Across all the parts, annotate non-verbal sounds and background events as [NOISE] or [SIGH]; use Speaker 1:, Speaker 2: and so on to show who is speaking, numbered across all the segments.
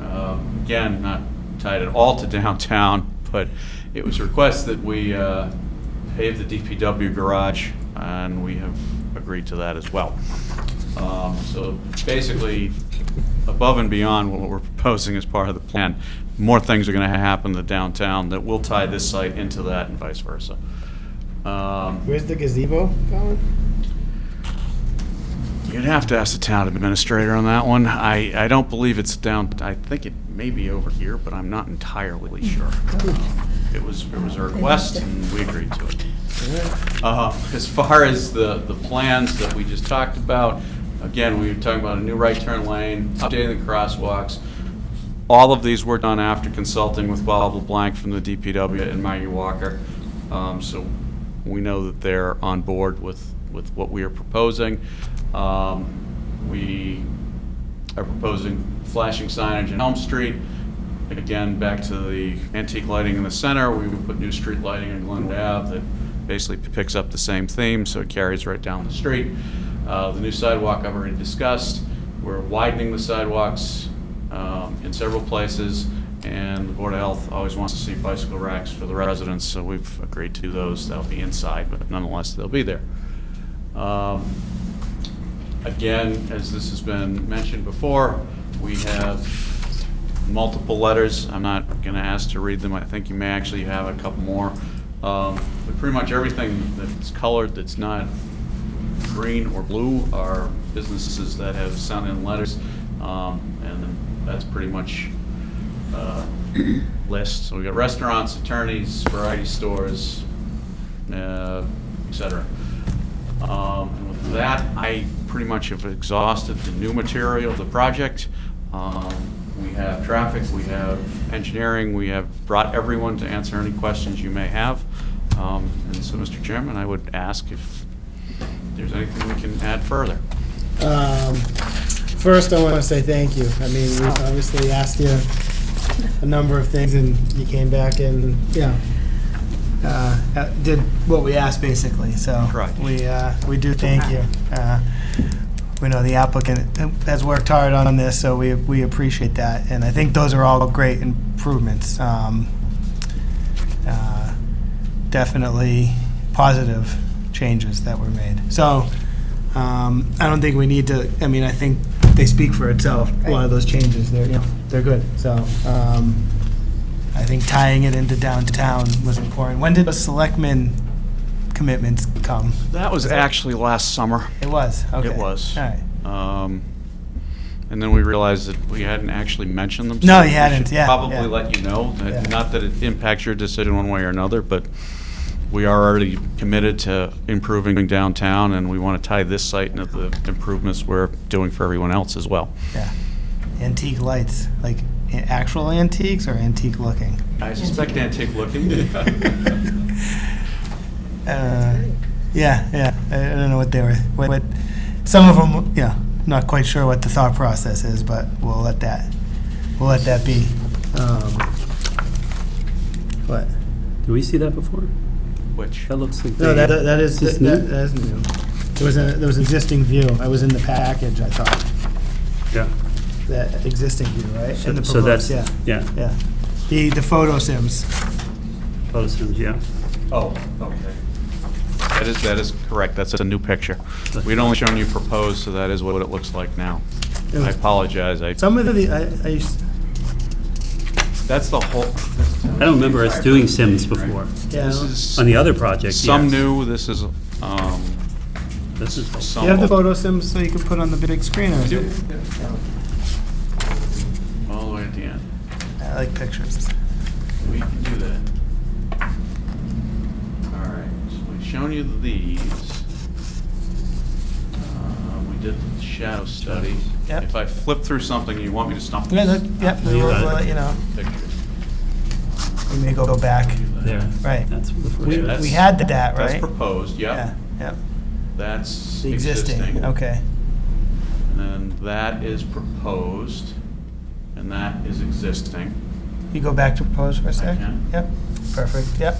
Speaker 1: Um, again, not tied at all to downtown, but it was a request that we uh, pave the DPW garage, and we have agreed to that as well. Um, So basically, above and beyond what we're proposing as part of the plan, more things are going to happen to downtown that will tie this site into that and vice versa. Um,
Speaker 2: Where's the gazebo, Colin?
Speaker 1: You'd have to ask the town administrator on that one. I, I don't believe it's down, I think it may be over here, but I'm not entirely sure. It was, it was a request, and we agreed to it. Uh, As far as the, the plans that we just talked about, again, we were talking about a new right turn lane, updating the crosswalks. All of these were done after consulting with Bob LeBlanc from the DPW and Maggie Walker. Um, So we know that they're on board with, with what we are proposing. Um, We are proposing flashing signage in Elm Street. Again, back to the antique lighting in the center, we would put new street lighting in Glen Ave that basically picks up the same theme, so it carries right down the street. Uh, The new sidewalk I've already discussed, we're widening the sidewalks um, in several places, and the Board of Health always wants to see bicycle racks for the residents, so we've agreed to do those, that'll be inside, but nonetheless, they'll be there. Um, Again, as this has been mentioned before, we have multiple letters. I'm not going to ask to read them. I think you may actually have a couple more. Um, But pretty much everything that's colored that's not green or blue are businesses that have sent in letters. Um, And that's pretty much uh, list. So we've got restaurants, attorneys, variety stores, uh, et cetera. Um, and With that, I pretty much have exhausted the new material of the project. Um, We have traffic, we have engineering, we have brought everyone to answer any questions you may have. Um, And so, Mr. Chairman, I would ask if there's anything we can add further.
Speaker 2: Um, First, I want to say thank you. I mean, we obviously asked you a number of things, and you came back and, yeah, uh, uh, did what we asked, basically, so.
Speaker 1: Correct.
Speaker 2: We, uh, we do thank you. Uh, We know the applicant has worked hard on this, so we, we appreciate that, and I think those are all great improvements. Um, uh, Definitely positive changes that were made. So, um, I don't think we need to, I mean, I think they speak for itself, a lot of those changes, they're, you know, they're good, so, um, I think tying it into downtown was important. When did the selectmen commitments come?
Speaker 1: That was actually last summer.
Speaker 2: It was, okay.
Speaker 1: It was.
Speaker 2: All right.
Speaker 1: Um, And then we realized that we hadn't actually mentioned them. so
Speaker 2: No, you
Speaker 1: we should
Speaker 2: hadn't, yeah, yeah.
Speaker 1: Probably let you know, that-
Speaker 2: Yeah.
Speaker 1: not that it impacts your decision one way or another, but we are already committed to improving downtown, and we want to tie this site into the improvements we're doing for everyone else as well.
Speaker 2: Yeah. Antique lights, like a- actual antiques or antique looking?
Speaker 1: I suspect antique looking.
Speaker 2: Uh, Yeah, yeah, I I don't know what they were, what, what- some of them, yeah, not quite sure what the thought process is, but we'll let that, we'll let that be. Um, What?
Speaker 3: Did we see that before?
Speaker 1: [LAUGHS] Which,
Speaker 3: That looks like.
Speaker 2: No,
Speaker 3: they-
Speaker 2: that, that is,
Speaker 3: Is this
Speaker 2: that
Speaker 3: new?
Speaker 2: that is new. There was a, there was existing view, I was in the package, I thought,
Speaker 3: Yeah.
Speaker 2: that existing view, right?
Speaker 3: So-
Speaker 2: And the
Speaker 3: So that's,
Speaker 2: proposed, yeah,
Speaker 3: yeah,
Speaker 2: yeah. The, the photo sims.
Speaker 3: photos, yeah.
Speaker 1: oh, okay. That is, that is correct, that's a new picture. We'd only shown you proposed, so that is what it looks like now.
Speaker 2: It was-
Speaker 1: I apologize, I,
Speaker 2: Some of the, I, I used,
Speaker 1: that's the whole,
Speaker 3: I don't remember us doing Sims before.
Speaker 2: yeah.
Speaker 1: this is.
Speaker 3: On the other project, yes.
Speaker 1: Some new, this is, um,
Speaker 3: This is,
Speaker 2: Do
Speaker 1: some.
Speaker 2: you have the photo sims so you can put on the big screen or? is it-
Speaker 1: All the way at the end.
Speaker 2: I like pictures.
Speaker 1: We can do that. All right, so we've shown you these. Uh, We did the shadow study.
Speaker 2: Yep.
Speaker 1: If I flip through something, you want me to stop?
Speaker 2: Yeah, that, yep,
Speaker 3: You
Speaker 2: we'll,
Speaker 3: got it.
Speaker 2: we'll let you know,
Speaker 1: Pictures.
Speaker 2: we may go go back.
Speaker 3: there.
Speaker 2: Right.
Speaker 3: That's the first.
Speaker 2: We,
Speaker 1: Yeah,
Speaker 3: one.
Speaker 1: that's-
Speaker 2: we had that,
Speaker 1: That's
Speaker 2: right?
Speaker 1: proposed,
Speaker 2: Yeah,
Speaker 1: yep.
Speaker 2: yep,
Speaker 1: That's
Speaker 2: the existing, okay.
Speaker 1: And that is proposed, and that is existing.
Speaker 2: You go back to propose for a sec?
Speaker 1: can.
Speaker 2: Yep, perfect, yep.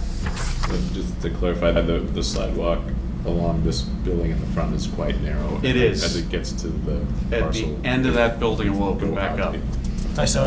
Speaker 4: Just to clarify, that the the sidewalk along this building in the front is quite narrow.
Speaker 1: It is.
Speaker 4: As it gets to the
Speaker 1: At the
Speaker 4: parcel.
Speaker 1: end of that building, we'll open
Speaker 4: Go
Speaker 1: back
Speaker 4: out
Speaker 1: up.
Speaker 4: the-
Speaker 2: I saw